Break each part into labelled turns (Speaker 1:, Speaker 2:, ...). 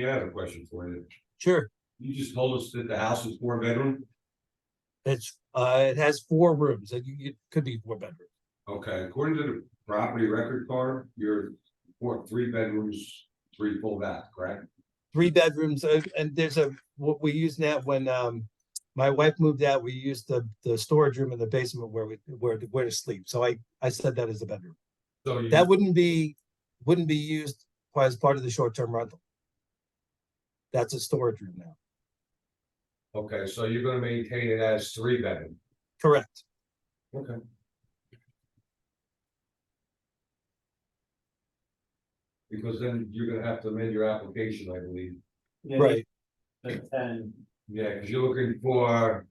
Speaker 1: Yeah, I have a question for you.
Speaker 2: Sure,
Speaker 1: You just told us that the house is four bedroom,
Speaker 2: it's, uh, it has four rooms, it, it could be four bedrooms.
Speaker 1: okay, according to the property record card, you're four, three bedrooms, three full bath, correct?
Speaker 2: Three bedrooms, uh, and there's a, what we use now, when, um, my wife moved out, we used the, the storage room in the basement where we, where, to- where to sleep, so I, I said that as a bedroom.
Speaker 1: So you,
Speaker 2: That wouldn't be, wouldn't be used as part of the short-term rental. That's a storage room now,
Speaker 1: okay, so you're gonna maintain it as three bedroom,
Speaker 2: correct,
Speaker 1: okay? Because then you're gonna have to amend your application, I believe,
Speaker 3: Yeah,
Speaker 2: right,
Speaker 3: the ten,
Speaker 1: yeah, because you're looking for,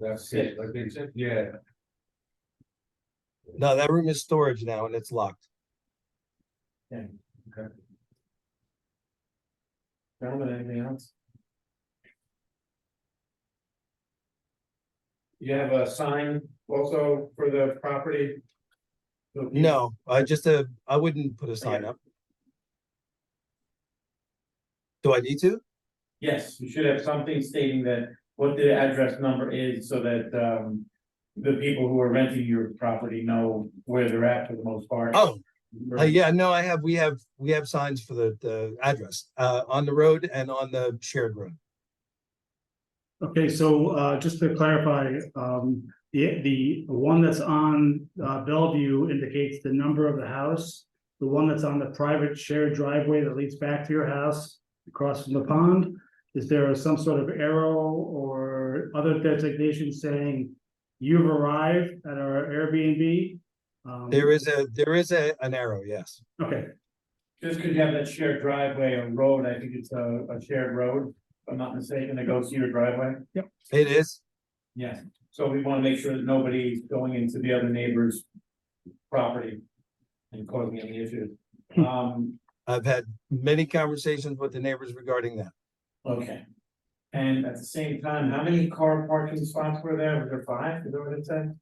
Speaker 1: that's it, I think, yeah,
Speaker 2: no, that room is storage now and it's locked.
Speaker 3: gentlemen, anything else? You have a sign also for the property?
Speaker 2: No, I just, uh, I wouldn't put a sign up. Do I need to?
Speaker 3: Yes, you should have something stating that what the address number is so that um. The people who are renting your property know where they're at for the most part.
Speaker 2: Oh, uh, yeah, no, I have, we have, we have signs for the, the address, uh, on the road and on the shared road.
Speaker 4: Okay, so uh just to clarify, um the the one that's on uh Bellevue indicates the number of the house. The one that's on the private shared driveway that leads back to your house across from the pond. Is there some sort of arrow or other designation saying you've arrived at our Airbnb? Um,
Speaker 2: There is a, there is a, an arrow, yes.
Speaker 4: Okay,
Speaker 3: Just because you have that shared driveway or road, I think it's a a shared road, if I'm not mistaken, that goes to your driveway.
Speaker 2: It is,
Speaker 3: Yes, so we wanna make sure that nobody's going into the other neighbor's property and causing any issues. Um,
Speaker 2: I've had many conversations with the neighbors regarding that.
Speaker 3: okay. And at the same time, how many car parking spots were there? Were there five? Is that what it said?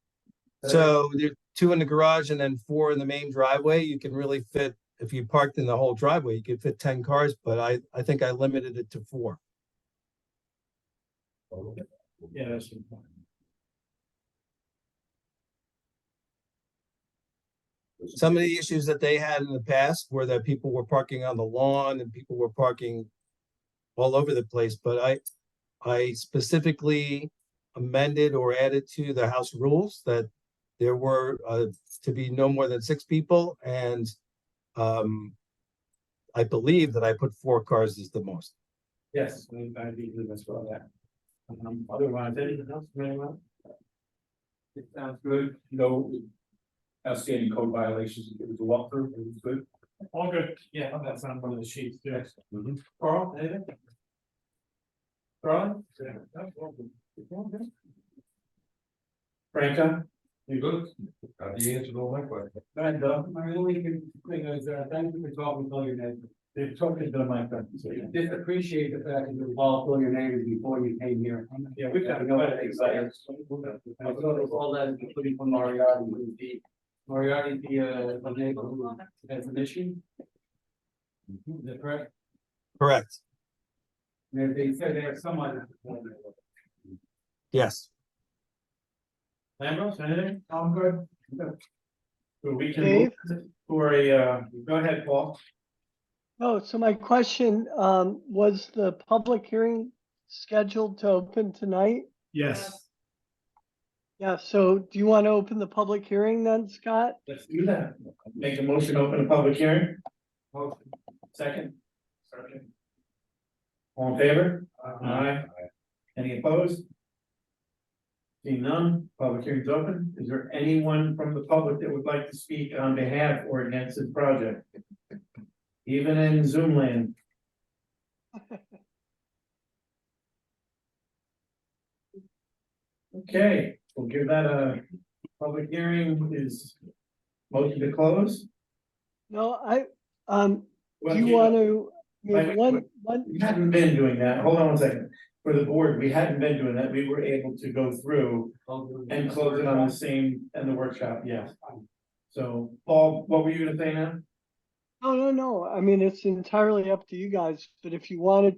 Speaker 2: So there's two in the garage and then four in the main driveway. You can really fit, if you parked in the whole driveway, you could fit ten cars, but I, I think I limited it to four.
Speaker 3: Yeah, that's important.
Speaker 2: Some of the issues that they had in the past were that people were parking on the lawn and people were parking all over the place, but I, I specifically amended or added to the house rules that there were, uh, to be no more than six people and, um, I believe that I put four cars is the most.
Speaker 3: Yes, we I do believe as well that. Um, otherwise, anything else, from anyone? It sounds good, no outstanding code violations, it was a walkthrough, it was good. All good. Yeah, that's on one of the sheets, yes. Mm-hmm.
Speaker 1: Mhm.
Speaker 3: Carl, anything? Carl? That's all good. It's all good. Franca?
Speaker 1: you good, Uh, you answered all my questions.
Speaker 3: And, uh, my only thing is, uh, thank you for talking about your neighbor. They've talked to my friend. Just appreciate the fact that you involved all your neighbors before you came here. Yeah, we've got to go. I thought of all that, including from Moriarty, would be, Moriarty, the, uh, the neighbor who has an issue? Is that correct?
Speaker 2: Correct,
Speaker 3: They, they said they have someone.
Speaker 2: yes.
Speaker 3: Lambros, anything? I'm good. So we can
Speaker 5: Dave?
Speaker 3: move for a, uh, go ahead, Paul.
Speaker 5: Oh, so my question, um, was the public hearing scheduled to open tonight?
Speaker 4: yes.
Speaker 5: Yeah, so do you want to open the public hearing then, Scott?
Speaker 3: Let's do that. Make a motion, to open a public hearing. Second. Second. All in favor? Aye. Any opposed? Seeing none, public hearing's open. Is there anyone from the public that would like to speak on behalf or against this project? Even in Zoom land? Okay, we'll give that a public hearing is motion to close.
Speaker 5: No, I, um,
Speaker 3: Well,
Speaker 5: do you want to, I
Speaker 3: Wait, wait,
Speaker 5: mean, one,
Speaker 3: wait.
Speaker 5: one,
Speaker 3: We hadn't been doing that, hold on one second, for the board, we hadn't been doing that, we were able to go through and close it on the same, and the workshop, yes. So, Paul, what were you gonna say now?
Speaker 5: No, no, no. I mean, it's entirely up to you guys, but if you wanted